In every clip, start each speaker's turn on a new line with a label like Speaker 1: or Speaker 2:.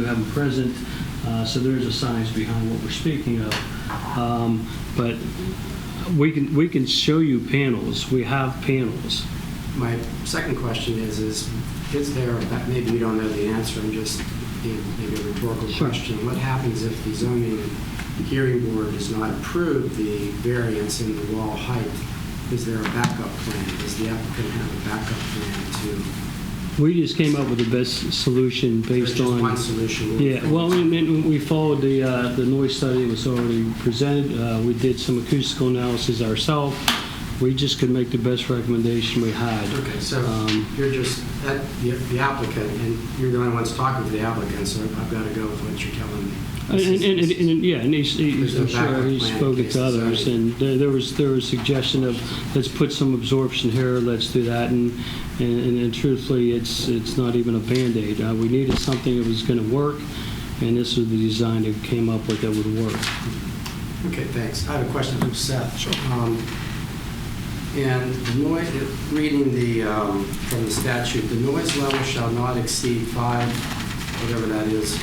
Speaker 1: you have them present, uh, so there is a science behind what we're speaking of. Um, But we can, we can show you panels, we have panels.
Speaker 2: My second question is, is, is there, that maybe you don't know the answer, I'm just being maybe a rhetorical
Speaker 1: Sure.
Speaker 2: question. What happens if the zoning hearing board does not approve the variance in the wall height? Is there a backup plan? Does the applicant have a backup plan to?
Speaker 1: We just came up with the best solution
Speaker 2: there's
Speaker 1: based
Speaker 2: just
Speaker 1: on.
Speaker 2: one solution?
Speaker 1: Yeah, well, we, we- we followed the, uh, the noise study that was already presented. Uh, we did some acoustical analysis ourselves. We just could make the best recommendation we had.
Speaker 2: Okay, so
Speaker 1: Um,
Speaker 2: you're just, that, the the applicant, and you're the only ones talking to the applicant, so I've got to go with what you're telling me.
Speaker 1: And, and, and, and- yeah, and he's,
Speaker 2: There's
Speaker 1: he's,
Speaker 2: no
Speaker 1: I'm sure
Speaker 2: backup
Speaker 1: he's
Speaker 2: plan in
Speaker 1: spoken
Speaker 2: case
Speaker 1: to
Speaker 2: it's
Speaker 1: others,
Speaker 2: already-
Speaker 1: and there, there was, there was suggestion of, let's put some absorption here, let's do that, and, and, and truthfully, it's, it's not even a Band-Aid. Uh, we needed something that was gonna work, and this was the design that came up with that would work.
Speaker 2: Okay, thanks. I have a question for Seth. Sure. And the noi- reading the, um, from the statute, the noise level shall not exceed five, whatever that is,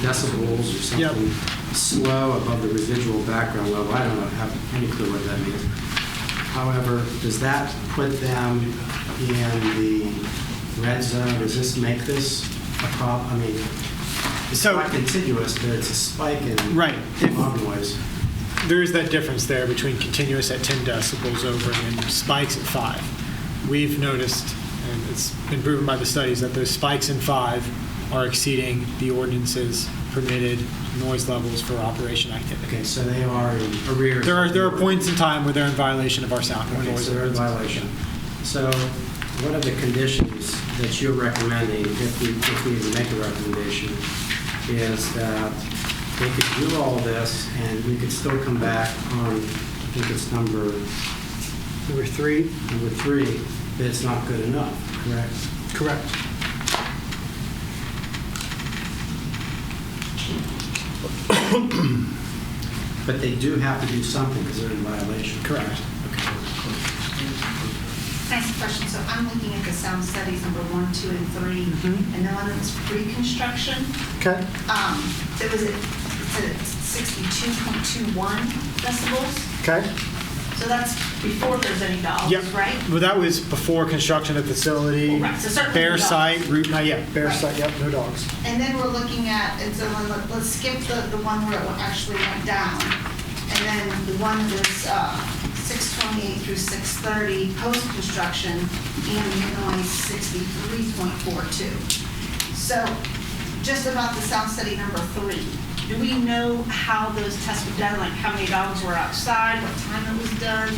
Speaker 2: decibels or something, slow above the residual background level. I don't know- have any clue what that means. However, does that put them in the red zone? Does this make this a problem? I mean, it's
Speaker 3: So-
Speaker 2: not contiguous, but it's a spike in
Speaker 3: Right. If-
Speaker 2: loud noise.
Speaker 3: There is that difference there between continuous at 10 decibels over and spikes at 5. We've noticed, and it's been proven by the studies, that those spikes in 5 are exceeding the ordinance's permitted noise levels for operation
Speaker 2: Okay,
Speaker 3: activity.
Speaker 2: so they are in arrears.
Speaker 3: There are, there are points in time where they're in violation of our sound
Speaker 2: Okay,
Speaker 3: noise
Speaker 2: so they're in
Speaker 3: ordinance.
Speaker 2: violation. So what are the conditions that you're recommending, if we, if we even make a recommendation, is that they could do all this and we could still come back on, I think it's number,
Speaker 3: Number three?
Speaker 2: number three, that it's not good enough, correct?
Speaker 3: Correct.
Speaker 2: But they do have to do something because they're in violation.
Speaker 3: Correct.
Speaker 4: Nice question. So I'm looking at the sound studies number one, two, and three,
Speaker 3: Mhm.
Speaker 4: and the one that's reconstruction.
Speaker 3: Okay.
Speaker 4: Um, there was a, it's a 62.21 decibels.
Speaker 3: Okay.
Speaker 4: So that's before there's any
Speaker 3: Yep.
Speaker 4: dogs, right?
Speaker 3: Well, that was before construction of the facility.
Speaker 4: Right, so certainly no
Speaker 3: Bear
Speaker 4: dogs.
Speaker 3: site, route, not yet, bear
Speaker 4: Right.
Speaker 3: site, yep, no dogs.
Speaker 4: And then we're looking at, and so let- let's skip the, the one where it actually went down. And then the one that's uh, 628 through 630, post-construction, E ambient noise 63.42. So just about the sound study number three, do we know how those tests were done? Like how many dogs were outside, what time it was done?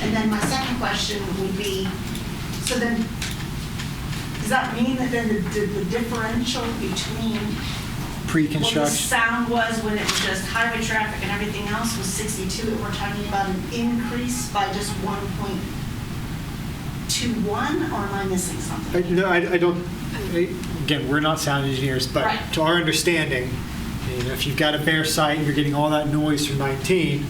Speaker 4: And then my second question would be, so then does that mean that then the, the the differential between what the
Speaker 3: Pre-construction.
Speaker 4: sound was when it was just highway traffic and everything else was 62, and we're talking about an increase by just 1.21, or am I missing
Speaker 3: I-
Speaker 4: something?
Speaker 3: No, I, I don't, I- again, we're not sound engineers, but
Speaker 4: Right.
Speaker 3: to our understanding, you know, if you've got a bare site and you're getting all that noise from 19,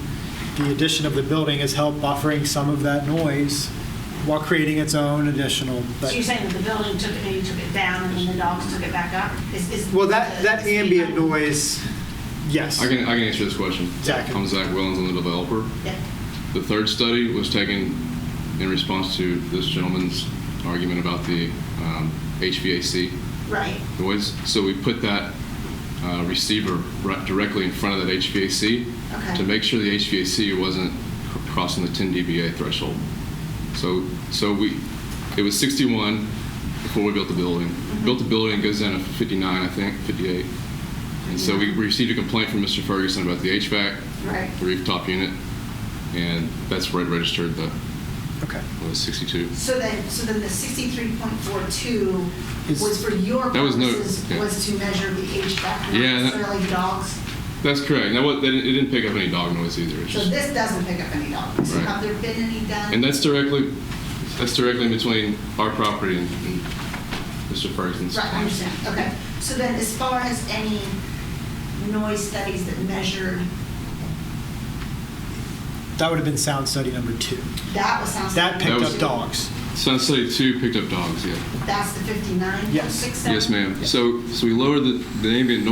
Speaker 3: the addition of the building has helped buffering some of that noise while creating its own additional.
Speaker 4: So
Speaker 3: but-
Speaker 4: you're saying that the building took it, maybe took it down, and then the dogs took it back up? Is- is-
Speaker 3: Well, that, that
Speaker 4: is-
Speaker 3: ambient noise, yes.
Speaker 5: I can, I can answer this question.
Speaker 3: Zach.
Speaker 5: I'm Zach Willens, I'm the developer.
Speaker 4: Yeah.
Speaker 5: The third study was taken in response to this gentleman's argument about the um, HVAC
Speaker 4: Right,
Speaker 5: noise. So we put that uh, receiver right directly in front of that HVAC
Speaker 4: Okay.
Speaker 5: to make sure the HVAC wasn't cr- crossing the 10 dBA threshold. So, so we, it was 61 before we built the building.
Speaker 4: Mm-hmm.
Speaker 5: Built the building, it goes down to 59, I think, 58. And so we received a complaint from Mr. Ferguson about the HVAC,
Speaker 4: right.
Speaker 5: the rooftop unit, and that's where it registered the
Speaker 3: Okay.
Speaker 5: what was 62.
Speaker 4: So then, so then the 63.42
Speaker 3: Is-
Speaker 4: was for your
Speaker 5: That was no-
Speaker 4: purposes,
Speaker 5: yeah.
Speaker 4: was to measure the HVAC, not
Speaker 5: Yeah, that-
Speaker 4: necessarily dogs?
Speaker 5: That's correct. Now, what, it didn't pick up any dog noise either. It's
Speaker 4: So
Speaker 5: just,
Speaker 4: this doesn't pick up any dogs.
Speaker 5: Right.
Speaker 4: Have there been any done?
Speaker 5: And that's directly, that's directly between our property and and Mr. Ferguson's.
Speaker 4: Right, I understand, okay. So then as far as any noise studies that measured,
Speaker 3: That would have been sound study number two.
Speaker 4: that was sound.
Speaker 3: That
Speaker 4: study
Speaker 5: That
Speaker 3: picked
Speaker 5: was-
Speaker 3: up dogs.
Speaker 5: Sounds like two picked up dogs, yeah.
Speaker 4: That's the 59?
Speaker 3: Yes.
Speaker 5: Yes, ma'am. So, so we lowered the, the ambient noise